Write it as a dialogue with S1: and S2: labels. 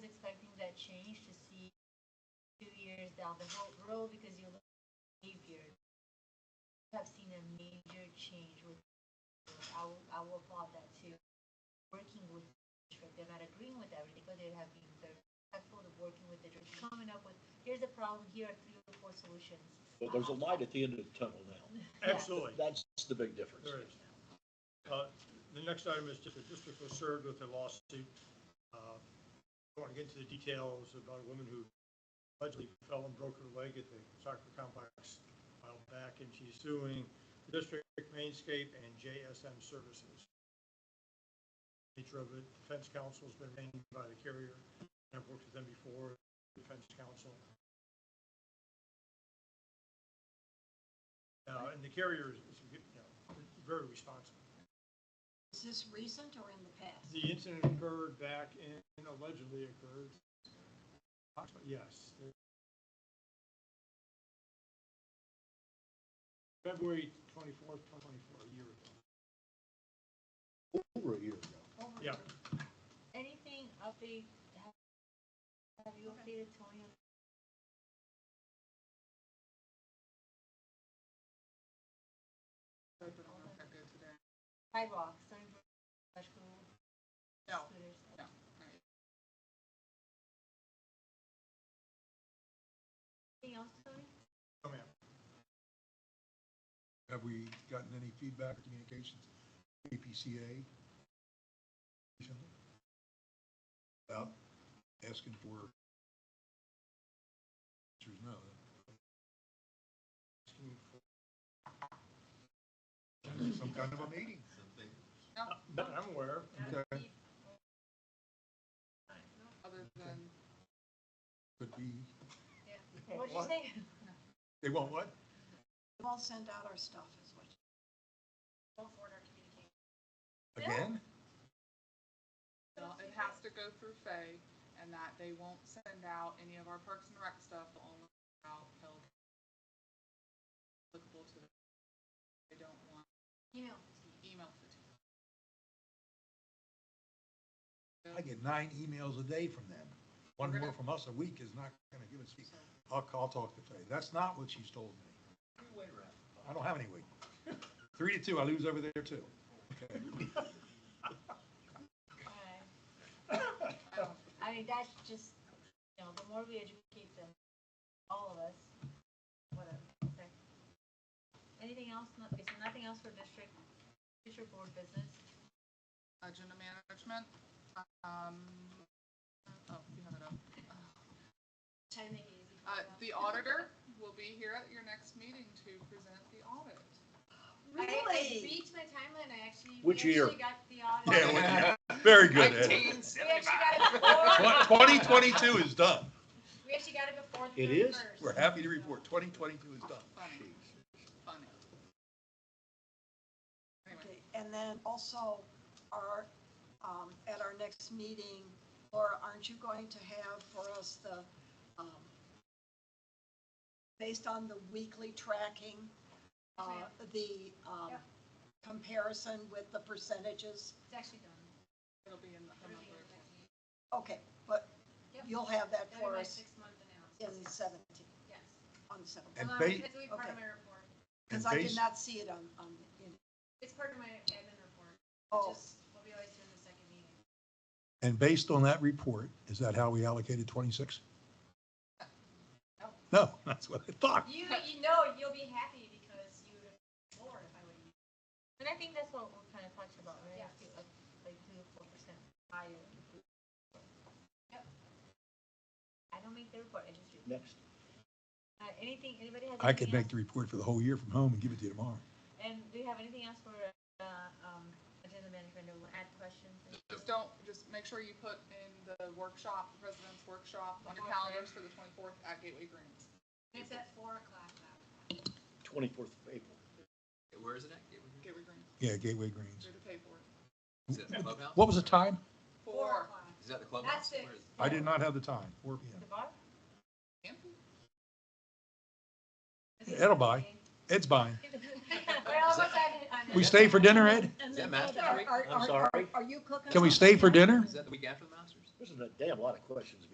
S1: change to see two years down the ro- road because you look at behavior. You have seen a major change with, I will, I will applaud that too. Working with, the district, they're not agreeing with everything, but they have been very respectful of working with the district, coming up with, here's a problem, here are three or four solutions.
S2: But there's a light at the end of the tunnel now.
S3: Absolutely,
S2: That's the big difference.
S3: there is. Uh, The next item is that the district was served with a lawsuit. Uh, I want to get into the details about a woman who allegedly fell and broke her leg at the soccer complex a while back, and she's suing the district, Mainscape, and JSM Services. Nature of it, defense counsel's been named by the carrier, I've worked with them before, defense counsel. Uh, And the carrier is, is, you know, very responsible.
S4: Is this recent or in the past?
S3: The incident occurred back in, allegedly occurred, yes. February twenty-fourth, twenty twenty-four, a year ago.
S2: Over a year ago.
S4: Over
S3: Yeah.
S4: the-
S1: Anything update, have, have you updated Tony? on-
S5: I've been on it that day today.
S1: Sidewalks, Sunnybrook, Rush Grove,
S5: No,
S1: scooters.
S5: no.
S1: Anything else, Tony?
S3: Oh, ma'am.
S6: Have we gotten any feedback or communications, from APCA? recently? About asking for. Answers no.
S3: Asking for-
S6: Some kind of a meeting.
S3: But I'm aware,
S6: Okay,
S5: other than,
S6: Could be,
S3: Well,
S1: What'd you
S3: what-
S1: say?
S6: they want what?
S4: We've all sent out our stuff, is what.
S1: Don't order communication.
S6: Again?
S5: well, it has to go through Fay, and that they won't send out any of our Parks and Rec stuff, they'll only send out Pelican. Applicable to, them. they don't want
S1: Email.
S5: email fatigue. So-
S6: I get nine emails a day from them. One more from us a week is not gonna give us, I'll, I'll talk to Fay. That's not what she's told me. I don't have any weight. Three to two, I lose over there too.
S1: Alright.
S5: I don't-
S1: I mean, that's just, you know, the more we educate them, all of us, whatever, okay. Anything else, no, is there nothing else for district, district board business?
S5: agenda management, um, oh, you have it up. Uh, the auditor will be here at your next meeting to present the audit.
S7: I, I beat my timeline. I actually
S2: Which
S7: we
S2: year?
S7: actually got the audit.
S6: Yeah, Very good,
S7: we actually got it before.
S6: Twenty twenty-two is done.
S7: we actually got it before. The
S2: It is?
S7: 31st.
S6: We're happy to report twenty twenty-two is done.
S5: Funny, funny. Anyway,
S4: Okay, And then also, our, um, at our next meeting, Laura, aren't you going to have for us the, um, based on the weekly tracking, uh, the, um,
S7: Yep.
S4: comparison with the percentages?
S7: It's actually done.
S5: it'll be in the,
S7: It'll be in the-
S4: Okay, but
S7: Yep.
S4: you'll have that
S7: That'll be
S4: for
S7: my
S4: us
S7: six month analysis.
S4: in the seventeenth,
S7: Yes.
S4: on the seventeenth.
S6: And
S7: Well,
S6: ba-
S7: it's gonna be part of
S4: okay.
S7: my report.
S4: Because
S6: And
S4: I did
S6: based-
S4: not see it on, on, in,
S7: It's part of my admin report.
S4: oh,
S7: Just what we always do in the second meeting.
S6: And based on that report, is that how we allocated twenty-six? No, that's what I thought.
S7: You you know you'll be happy because you would have more if I would. have-
S1: And I think that's what we kind of talked about, right?
S7: Yes.
S1: Like, Like two or four percent higher.
S7: Yep.
S1: I don't make the report, I just, read.
S2: Next.
S1: uh, anything, anybody has?
S6: I could
S1: anything
S6: make the report for the whole year from home and give it to you tomorrow.
S1: else? And do you have anything else for, uh, um, agenda management, or add questions?
S5: just don't, just make sure you put in the workshop, the president's workshop on your calendars for the twenty-fourth at Gateway Greens.
S7: It's at four o'clock now.
S2: Twenty-fourth of April.
S8: Where is it at? Gateway
S5: Gateway
S8: Green?
S5: Greens,
S6: Yeah, Gateway Greens.
S5: you're to pay for it.
S8: Is it at the clubhouse?
S6: What was the time?
S5: Four.
S7: o'clock.
S8: Is that the clubhouse?
S7: That's it.
S8: Where is-
S6: I did not have the time, four P
S1: The bar?
S6: It'll buy. Ed's buying.
S7: We're almost at it. on it.
S6: We stay for dinner, Ed?
S4: and
S8: Is
S4: then
S8: that Master
S4: are-
S8: Creek?
S4: Oh, are-
S2: I'm
S4: are-
S2: sorry.
S4: Are you cooking?
S6: Can we stay for dinner?
S8: Is that the week after the Masters?
S2: This is a damn lot of questions